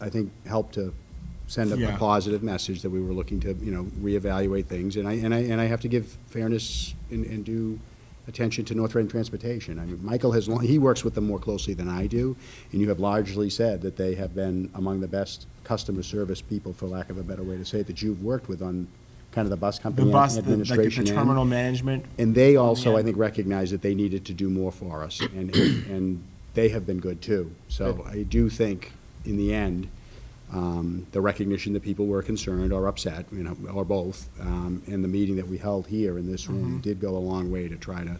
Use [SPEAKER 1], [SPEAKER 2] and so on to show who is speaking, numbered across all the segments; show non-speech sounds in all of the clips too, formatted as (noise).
[SPEAKER 1] I think, helped to send a- a
[SPEAKER 2] Yeah.
[SPEAKER 1] positive message that we were looking to, you know, reevaluate things. And I, and I, and I have to give fairness and, and due attention to North Reading Transportation. I mean, Michael has, lo- he works with them more closely than I do, and you have largely said that they have been among the best customer service people, for lack of a better way to say it, that you've worked with on kind of the bus
[SPEAKER 2] The
[SPEAKER 1] company and
[SPEAKER 2] bus, the- like the
[SPEAKER 1] administration end.
[SPEAKER 2] terminal management,
[SPEAKER 1] And they also, I
[SPEAKER 2] Yeah.
[SPEAKER 1] think, recognized that they needed to do more for us, and, and and they have been good too. So I do think, in the end, um, the recognition that people were concerned or upset, you know, or both, um, and the meeting that we held here in this
[SPEAKER 3] Mm-hmm.
[SPEAKER 1] room did go a long way to try to,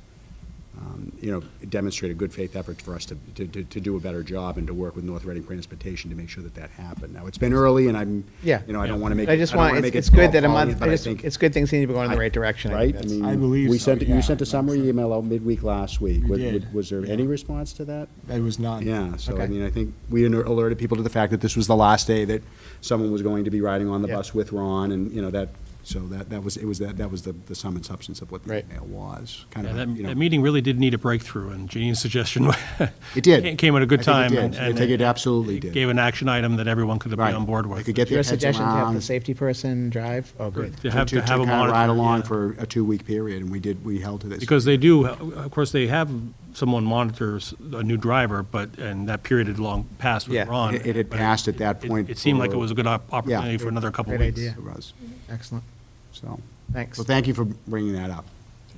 [SPEAKER 1] um, you know, demonstrate a good faith effort for us to, to, to- to do a better job and to work with North Reading Transportation to make sure that that happened. Now, it's been early, and I'm, you
[SPEAKER 3] Yeah.
[SPEAKER 1] know, I don't want to make.
[SPEAKER 3] I just
[SPEAKER 1] don't
[SPEAKER 3] want,
[SPEAKER 1] wanna
[SPEAKER 3] it's,
[SPEAKER 1] make
[SPEAKER 3] it's
[SPEAKER 1] it all
[SPEAKER 3] good that a
[SPEAKER 1] Pollyanna,
[SPEAKER 3] month,
[SPEAKER 1] but
[SPEAKER 3] I
[SPEAKER 1] I
[SPEAKER 3] just,
[SPEAKER 1] think-
[SPEAKER 3] it's good things seem to be going in the right direction. I
[SPEAKER 1] Right?
[SPEAKER 3] think that's-
[SPEAKER 1] mean,
[SPEAKER 2] I believe
[SPEAKER 1] we
[SPEAKER 2] so,
[SPEAKER 1] sent-
[SPEAKER 2] yeah,
[SPEAKER 1] You sent a
[SPEAKER 2] I'm
[SPEAKER 1] summary
[SPEAKER 2] sure.
[SPEAKER 1] email out midweek last week.
[SPEAKER 2] We
[SPEAKER 1] Was-
[SPEAKER 2] did,
[SPEAKER 1] Was there
[SPEAKER 2] yeah.
[SPEAKER 1] any response to that?
[SPEAKER 2] it was not.
[SPEAKER 1] Yeah, so I
[SPEAKER 3] Okay.
[SPEAKER 1] mean, I think we aler- alerted people to the fact that this was the last day that someone was going to be riding on the
[SPEAKER 3] Yeah.
[SPEAKER 1] bus with Ron, and, you know, that, so that, that was, it was, that that was the the sum and substance of what the
[SPEAKER 3] Right.
[SPEAKER 1] email was, kind
[SPEAKER 4] Yeah,
[SPEAKER 1] of,
[SPEAKER 4] that, that
[SPEAKER 1] you know.
[SPEAKER 4] meeting really did need a breakthrough, and Jean's suggestion. (laughs)
[SPEAKER 1] It did.
[SPEAKER 4] It came at a good
[SPEAKER 1] I
[SPEAKER 4] time.
[SPEAKER 1] think it
[SPEAKER 4] and-
[SPEAKER 1] did.
[SPEAKER 4] and
[SPEAKER 1] I think it absolutely did.
[SPEAKER 4] Gave an action item that everyone could be
[SPEAKER 1] Right.
[SPEAKER 4] on board with.
[SPEAKER 1] They could get
[SPEAKER 3] Your
[SPEAKER 1] their heads
[SPEAKER 3] suggestion to have the
[SPEAKER 1] around.
[SPEAKER 3] safety person drive? Oh, good.
[SPEAKER 4] To have, to have a
[SPEAKER 1] kind of
[SPEAKER 4] monitor.
[SPEAKER 1] ride along
[SPEAKER 4] yeah.
[SPEAKER 1] for a two-week period, and we did, we held to this.
[SPEAKER 4] Because they do, of course, they have, someone monitors a new driver, but, and that period had long passed
[SPEAKER 3] Yeah,
[SPEAKER 4] with Ron.
[SPEAKER 1] it- it had
[SPEAKER 4] but
[SPEAKER 1] passed at that
[SPEAKER 4] it-
[SPEAKER 1] point
[SPEAKER 4] It seemed like it
[SPEAKER 1] for-
[SPEAKER 4] was a good op- opportunity for another couple of
[SPEAKER 3] Great
[SPEAKER 4] weeks.
[SPEAKER 3] idea.
[SPEAKER 1] It was,
[SPEAKER 3] Excellent.
[SPEAKER 1] so.
[SPEAKER 3] Thanks.
[SPEAKER 1] So thank you for bringing that up,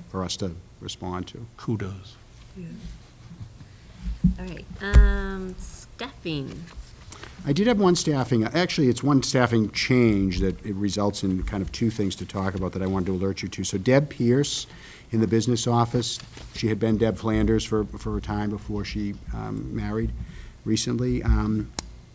[SPEAKER 1] for us to respond to.
[SPEAKER 4] Kudos.
[SPEAKER 5] All right, um, staffing.
[SPEAKER 1] I did have one staffing, actually, it's one staffing change that it results in kind of two things to talk about that I wanted to alert you to. So Deb Pierce in the business office, she had been Deb Flanders for, for a time before she um, married recently. Um,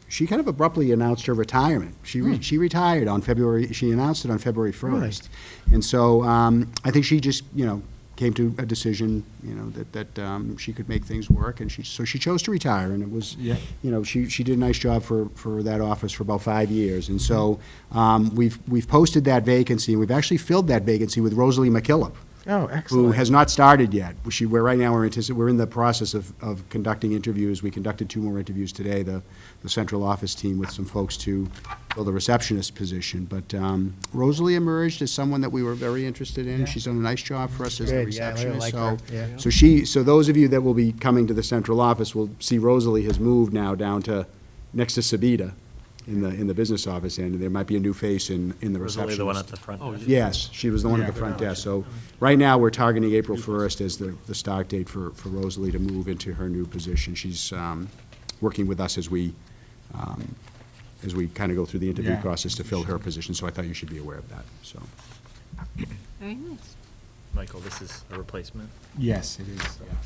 [SPEAKER 1] She kind of abruptly announced her retirement. She, re- she retired on February, she announced it on February 1st. And so um, I think she just, you know, came to a decision, you know, that, that um, she could make things work, and she, so she chose to retire, and it was,
[SPEAKER 2] Yeah.
[SPEAKER 1] you know, she, she did a nice job for, for that office for about five years. And so um, we've, we've posted that vacancy, and we've actually filled that vacancy with Rosalie McKillop,
[SPEAKER 3] Oh,
[SPEAKER 1] who
[SPEAKER 3] excellent.
[SPEAKER 1] has not started yet. She, we're, right now, we're anticipating, we're in the process of, of conducting interviews. We conducted two more interviews today, the, the central office team with some folks to fill the receptionist position. But um, Rosalie emerged as someone that we were very interested in. She's done a nice job for us as the
[SPEAKER 3] Good, yeah, I really
[SPEAKER 1] receptionist.
[SPEAKER 3] like
[SPEAKER 1] So,
[SPEAKER 3] her, yeah.
[SPEAKER 1] so she, so those of you that will be coming to the central office will see Rosalie has moved now down to, next to Sabita in the, in the business office, and there might be a new face in, in the receptionist.
[SPEAKER 6] Rosalie, the one at the front.
[SPEAKER 4] Oh,
[SPEAKER 6] desk.
[SPEAKER 1] Yes, she was the one at the
[SPEAKER 2] Yeah.
[SPEAKER 1] front desk. So right now, we're targeting April 1st as the, the start date for, for Rosalie to move into her new position. She's um, working with us as we, um, as we kind of go through the interview
[SPEAKER 2] Yeah.
[SPEAKER 1] process to fill her position, so I thought you should be aware of that, so.
[SPEAKER 5] Very nice.
[SPEAKER 6] Michael, this is a replacement.
[SPEAKER 2] Yes, it is, yeah.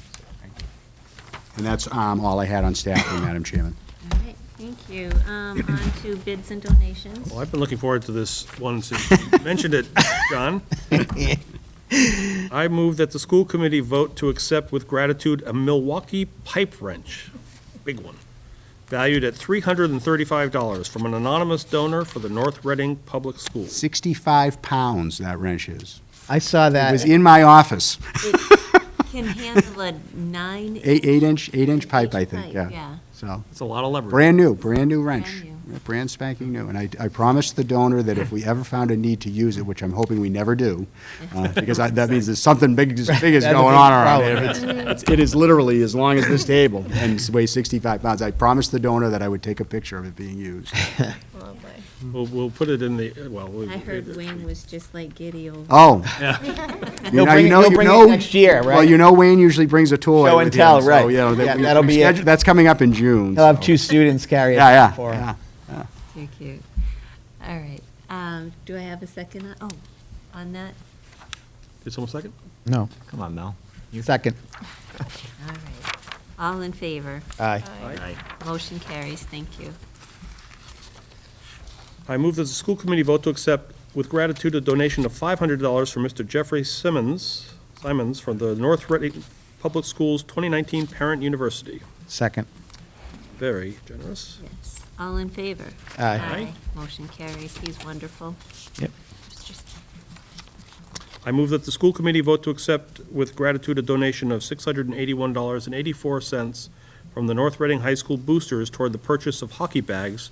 [SPEAKER 2] Thank you.
[SPEAKER 1] And that's um, all I had on staffing, Madam Chairman.
[SPEAKER 5] All right, thank you.
[SPEAKER 1] (clears throat)
[SPEAKER 5] Um, on to bids and donations.
[SPEAKER 6] I've been looking forward to this one since you mentioned it, John. I move that the school committee vote to accept with gratitude a Milwaukee pipe wrench, big one, valued at $335 from an anonymous donor for the North Reading Public Schools.
[SPEAKER 1] 65 pounds that wrench is.
[SPEAKER 3] I saw
[SPEAKER 1] It was
[SPEAKER 3] that.
[SPEAKER 1] in my office,
[SPEAKER 5] It
[SPEAKER 1] (laughs)
[SPEAKER 5] Can handle a nine.
[SPEAKER 1] eight, eight-inch, eight-inch pipe, I
[SPEAKER 5] Eight-inch
[SPEAKER 1] think,
[SPEAKER 5] pipe,
[SPEAKER 1] yeah.
[SPEAKER 5] yeah.
[SPEAKER 1] So.
[SPEAKER 6] It's a lot of leverage.
[SPEAKER 1] Brand new, brand new wrench.
[SPEAKER 5] Brand
[SPEAKER 1] Yeah, Brand spanking new. And I, I promised the donor that if we ever found a need to use it, which I'm hoping we never do, uh, because I- that means there's something big, as big is
[SPEAKER 3] That's a
[SPEAKER 1] going
[SPEAKER 3] big
[SPEAKER 1] on around
[SPEAKER 3] problem.
[SPEAKER 1] here. It's- it's- It is literally as long as this table and weighs 65 pounds. I promised the donor that I would take a picture of it being
[SPEAKER 3] (laughs)
[SPEAKER 1] used.
[SPEAKER 6] We'll, we'll put it in the, well. we-
[SPEAKER 5] I heard Wayne was just like
[SPEAKER 1] (laughs)
[SPEAKER 5] giddy over.
[SPEAKER 1] Oh.
[SPEAKER 3] He'll
[SPEAKER 1] Now, you
[SPEAKER 3] bring it-
[SPEAKER 1] know-
[SPEAKER 3] he'll
[SPEAKER 1] you
[SPEAKER 3] bring it
[SPEAKER 1] know-
[SPEAKER 3] next year,
[SPEAKER 1] Well,
[SPEAKER 3] right?
[SPEAKER 1] you know Wayne usually brings a toy.
[SPEAKER 3] Show and
[SPEAKER 1] with him,
[SPEAKER 3] tell,
[SPEAKER 1] so,
[SPEAKER 3] right.
[SPEAKER 1] you know, that
[SPEAKER 3] Yeah,
[SPEAKER 1] we-
[SPEAKER 3] that'll
[SPEAKER 1] we
[SPEAKER 3] be it.
[SPEAKER 1] schedule- That's coming up in June.
[SPEAKER 3] He'll have
[SPEAKER 1] so-
[SPEAKER 3] two students carry it.
[SPEAKER 1] Yeah, yeah,
[SPEAKER 3] for him.
[SPEAKER 1] yeah.
[SPEAKER 5] Too cute. All right, um, do I have a second? on- Oh, on that?
[SPEAKER 6] Did someone second?
[SPEAKER 3] No,
[SPEAKER 6] Come on, Mel.
[SPEAKER 3] second.
[SPEAKER 5] All right. All in favor?
[SPEAKER 3] Aye.
[SPEAKER 6] Aye.
[SPEAKER 5] Motion carries, thank you.
[SPEAKER 6] I move that the school committee vote to accept with gratitude a donation of $500 from Mr. Jeffrey Simmons, Simons, from the North Reading Public Schools 2019 Parent University.
[SPEAKER 3] Second.
[SPEAKER 6] Very generous.
[SPEAKER 5] Yes. All in favor?
[SPEAKER 3] Aye.
[SPEAKER 5] Motion carries, he's wonderful.
[SPEAKER 3] Yep.
[SPEAKER 5] Mr. Sta-
[SPEAKER 6] I move that the school committee vote to accept with gratitude a donation of $681.84 from the North Reading High School Boosters toward the purchase of hockey bags